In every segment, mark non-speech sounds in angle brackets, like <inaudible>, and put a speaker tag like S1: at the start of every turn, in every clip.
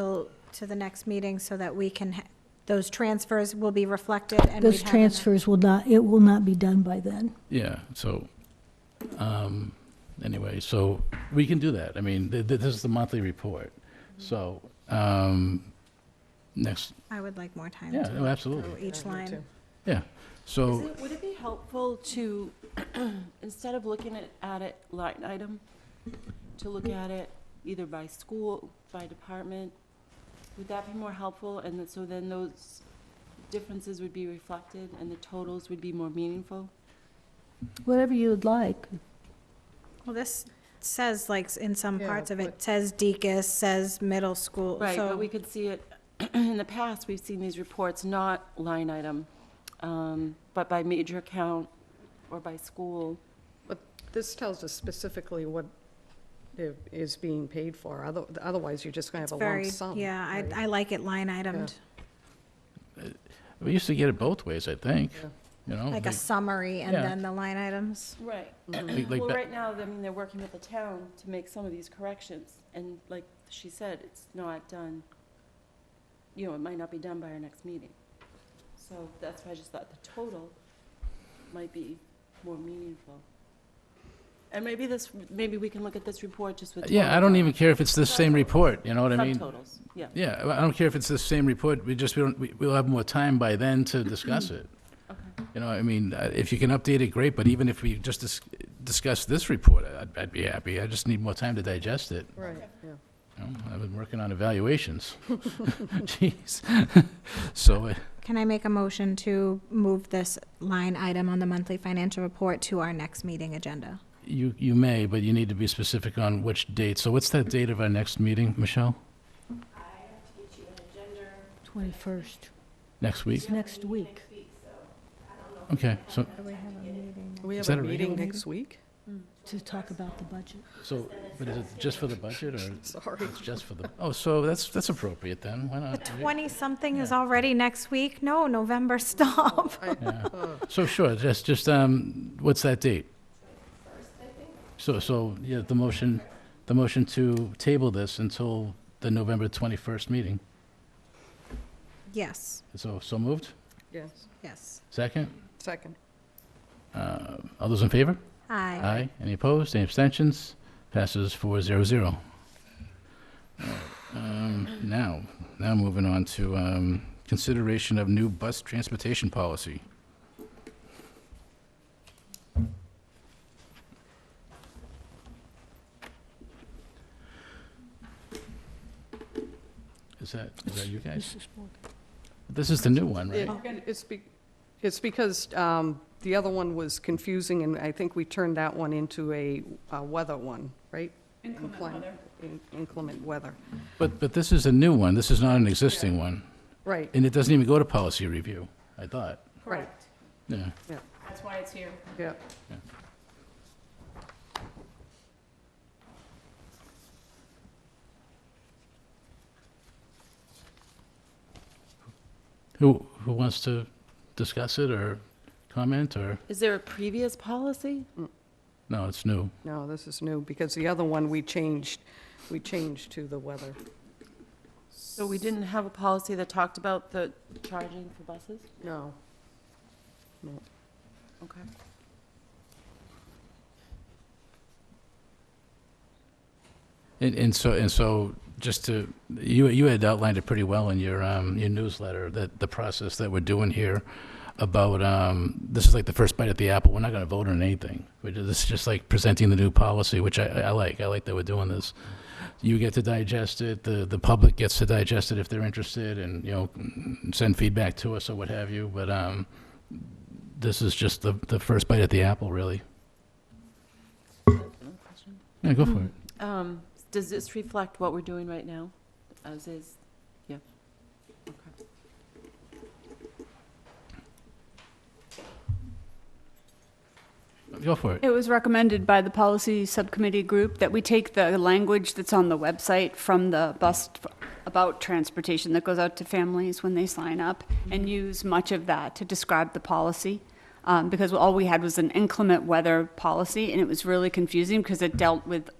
S1: till, to the next meeting so that we can, ha- those transfers will be reflected and we
S2: Those transfers will not, it will not be done by then.
S3: Yeah, so, um, anyway, so we can do that. I mean, th- th- this is the monthly report. So, um, next,
S1: I would like more time
S3: yeah,
S1: to
S3: oh,
S1: go
S3: absolutely,
S1: each line.
S4: Is
S3: so,
S4: it, would it be helpful to, <clears throat> instead of looking at, at it line item, to look at it either by school, by department? Would that be more helpful? And then- so then those differences would be reflected and the totals would be more meaningful?
S2: Whatever you would like.
S1: Well, this says, like, s- in some
S5: Yeah,
S1: parts of it,
S5: but-
S1: says Deacon's, says middle school,
S4: Right, but we
S1: so,
S4: could see it, <clears throat> in the past, we've seen these reports, not line item, um, but by major count or by school.
S5: This tells us specifically what i- is being paid for, Other- otherwise you're just going
S1: it's
S5: to have a lump
S1: very,
S5: sum.
S1: yeah,
S5: right?
S1: I, I like it line itemed,
S3: we used to get it both ways, I think,
S5: Yeah.
S3: you know?
S1: like a summary and
S3: Yeah.
S1: then the line items.
S4: Right.
S5: Mm-hmm.
S3: like- like
S4: Well,
S3: ba-
S4: right now, I mean, they're working with the town to make some of these corrections, and like she said, it's not done, you know, it might not be done by our next meeting. So that's why I just thought the total might be more meaningful. And maybe this, maybe we can look at this report just with.
S3: Yeah, I don't even care if it's the same
S4: Subtotals.
S3: report, you know what I mean?
S4: Subtotals, yeah.
S3: Yeah, I- I don't care if it's the same report, we just, we don't, we- we'll have more time by then to discuss it.
S4: Okay.
S3: You know, I mean, uh, if you can update it, great, but even if we just dis- discuss this report, I'd, I'd be happy. I just need more time to digest it.
S5: Right, yeah.
S3: you know? I've been working on evaluations. <laughs> Jeez. <laughs> So, uh,
S1: Can I make a motion to move this line item on the monthly financial report to our next meeting agenda?
S3: you, you may, but you need to be specific on which date. So what's that date of our next meeting, Michelle?
S2: 21st,
S3: Next week?
S2: next week.
S3: Okay, so,
S5: We
S3: Is
S5: have
S3: that
S5: a
S3: a
S5: meeting
S3: regular
S5: next week?
S2: To talk about the budget.
S3: so, but is it just for the budget or
S5: Sorry.
S3: it's just for the, oh, so that's, that's appropriate then, why
S1: The
S3: not?
S1: twenty-something is already next week? No, November, <laughs> stop.
S3: Yeah.
S5: Uh,
S3: So sure, just, just, um, what's that date? So, so, yeah, the motion, the motion to table this until the November 21st meeting.
S1: Yes,
S3: So, so moved?
S5: Yes,
S1: yes.
S3: Second?
S5: second.
S3: Uh, All those in favor?
S1: Aye.
S3: Any opposed? Any abstentions? Passes four zero zero. um, Now, now moving on to um, consideration of new bus transportation policy. Is that, is that you guys? This is the new one, right?
S5: It- It's be, it's because um, the other one was confusing, and I think we turned that one into a uh, weather one, right? Inclement weather. Inclement weather,
S3: But, but this is a new one. This is not an existing one.
S5: right,
S3: And it doesn't even go to policy review, I thought.
S5: Correct.
S3: Yeah.
S4: That's why it's here.
S5: yeah.
S3: Who, who wants to discuss it or comment or,
S4: Is there a previous policy?
S3: no, it's new.
S5: No, this is new, because the other one we changed, we changed to the weather.
S4: So we didn't have a policy that talked about the charging for buses?
S5: No.
S4: Okay.
S3: And, and so, and so just to, you, you had outlined it pretty well in your, um, your newsletter, that the process that we're doing here about, um, this is like the first bite at the apple. We're not going to vote on anything. We're ju- This is just like presenting the new policy, which I, I like. I like that we're doing this. You get to digest it, the, the public gets to digest it if they're interested and, you know, send feedback to us or what have you. But, um, this is just the, the first bite at the apple, really.
S4: Another question?
S3: Yeah, go for it.
S4: Um, does this reflect what we're doing right now, as is? Yeah. Okay.
S3: Go for it.
S6: It was recommended by the policy subcommittee group that we take the language that's on the website from the bus f- about transportation that goes out to families when they sign up and use much of that to describe the policy. Um, because all we had was an inclement weather policy and it was really confusing because it dealt with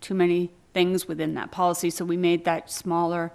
S6: too many things within that policy. So we made that smaller